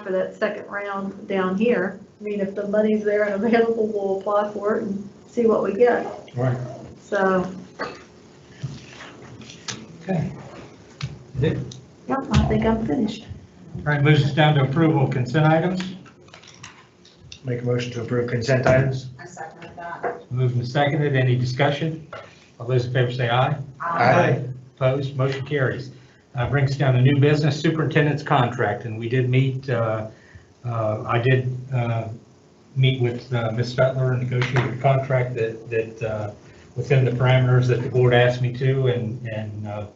for that second round down here. I mean, if the money's there and available, we'll apply for it and see what we get. Right. So, Okay. yeah, I think I'm finished. All right, moves us down to approval of consent items. Make a motion to approve consent items. I second that. Moved and seconded. Any discussion? All those in favor say aye. Aye. Opposed, motion carries. Uh, Brings down a new business superintendent's contract, and we did meet, uh, uh, I did uh, meet with uh, Ms. Fettler and negotiated a contract that, that uh, within the parameters that the board asked me to, and, and uh,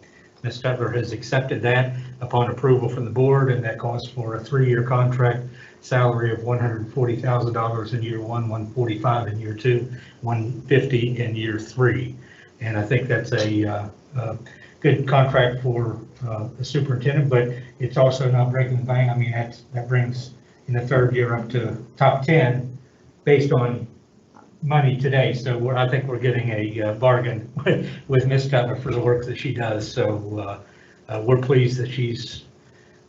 Ms. Fettler has accepted that upon approval from the board, and that calls for a three-year contract, salary of $140,000 in year one, 145 in year two, 150 in year three. And I think that's a, uh, uh, good contract for uh, the superintendent, but it's also not breaking the bank. I mean, that's, that brings in the third year up to top 10 based on money today. So we're, I think we're getting a uh, bargain with Ms. Cutler for the work that she does. So uh, uh, we're pleased that she's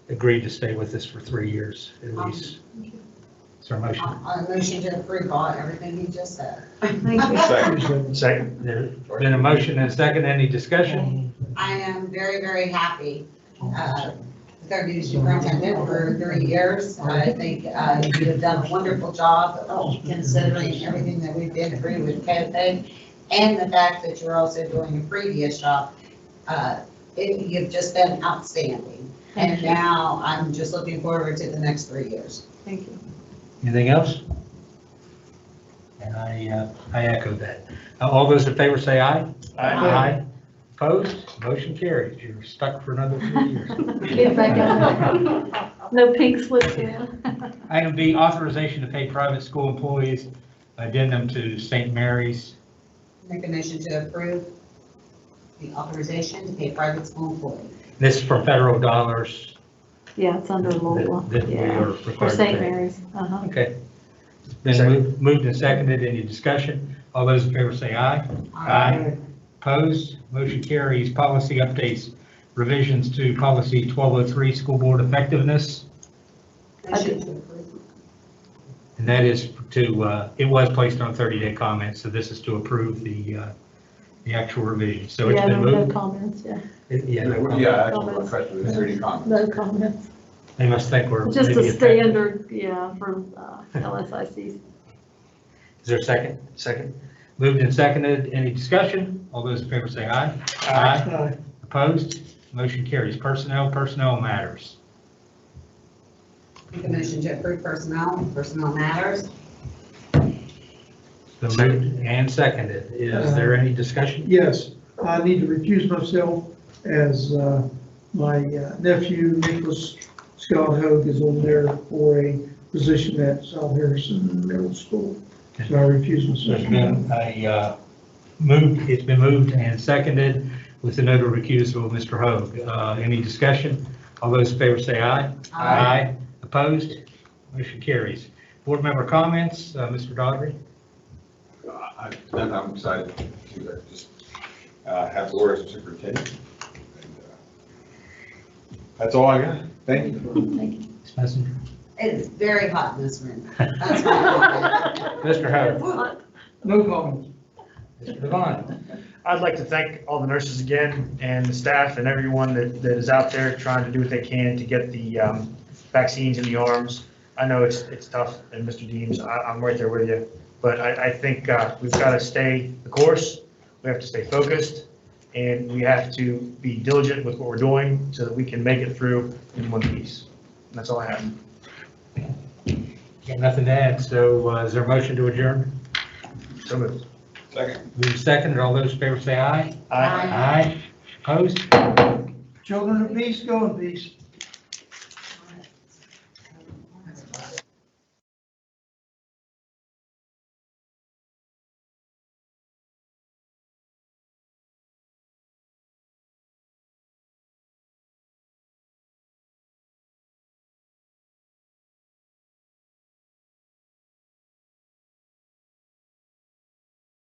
agreed to stay with us for three years at least. Is there a motion? I motion to approve all, everything you just said. Thank you. Second. Second. There's been a motion and a second. Any discussion? I am very, very happy. uh, with our new superintendent for three years. I think uh, you have done a wonderful job considering everything that we've been through with COVID and the fact that you're also doing a previous job. Uh, it- You've just been outstanding. And Thank you. now I'm just looking forward to the next three years. Thank you. Anything else? And I, uh, I echo that. Uh, All those in favor say aye. Aye. Opposed? Motion carries. You're stuck for another three years. Get back up. No pink slips in. Item B, authorization to pay private school employees addendum to St. Mary's. Make a motion to approve the authorization to pay private school employees. This is for federal dollars Yeah, it's under that Louisville. that we Yeah. are For required to St. pay. Mary's, uh-huh. Okay. Then Second. moved- moved and seconded. Any discussion? All those in favor say aye. Aye. Opposed? Motion carries. Policy updates, revisions to policy 1203, school board effectiveness. Motion to approve. And that is to, uh, it was placed on 30-day comments, so this is to approve the, uh, the actual revision. So it's Yeah, been no- no moved. comments, yeah, It- Yeah, no comment. Yeah, actually, my question was thirty comments. no comments. they must think we're. Just maybe a effective. standard, yeah, for uh, LSIC. Is there a second? Second. Moved and seconded. Any discussion? All those in favor say aye. Opposed? Motion carries. Personnel, personnel matters. Make a motion to approve personnel, personnel matters. So moved and seconded. Is there any discussion? Yes, I need to recuse myself as uh, my uh, nephew Nicholas Scott Hoag is on there for a position at South Harrison Middle School. So I recuse There's myself. been a uh, move, it's been moved and seconded with the note of recusal of Mr. Hoag. Uh, Any discussion? All those in favor say aye. Opposed? Motion carries. Board member comments, Uh, Mr. Dodgery? I- Then I'm excited to uh, just uh, have Laura as superintendent. And, uh, That's all I got. Thank you. Ms. Messenger? It's very hot in this room. That's my Mr. Hoag? No comments. Mr. Devon? I'd like to thank all the nurses again and the staff and everyone that, that is out there trying to do what they can to get the um, vaccines in the arms. I know it's, it's tough, and Mr. Deems, I, I'm right there with you, but I, I think uh, we've got to stay the course. We have to stay focused, and we have to be diligent with what we're doing so that we can make it through in one piece. And that's all I have. Got nothing to add, so uh, is there a motion to adjourn? So moved. Second. Moved and seconded. All those in favor say aye. Aye. Aye. Opposed? Children of peace, go in peace.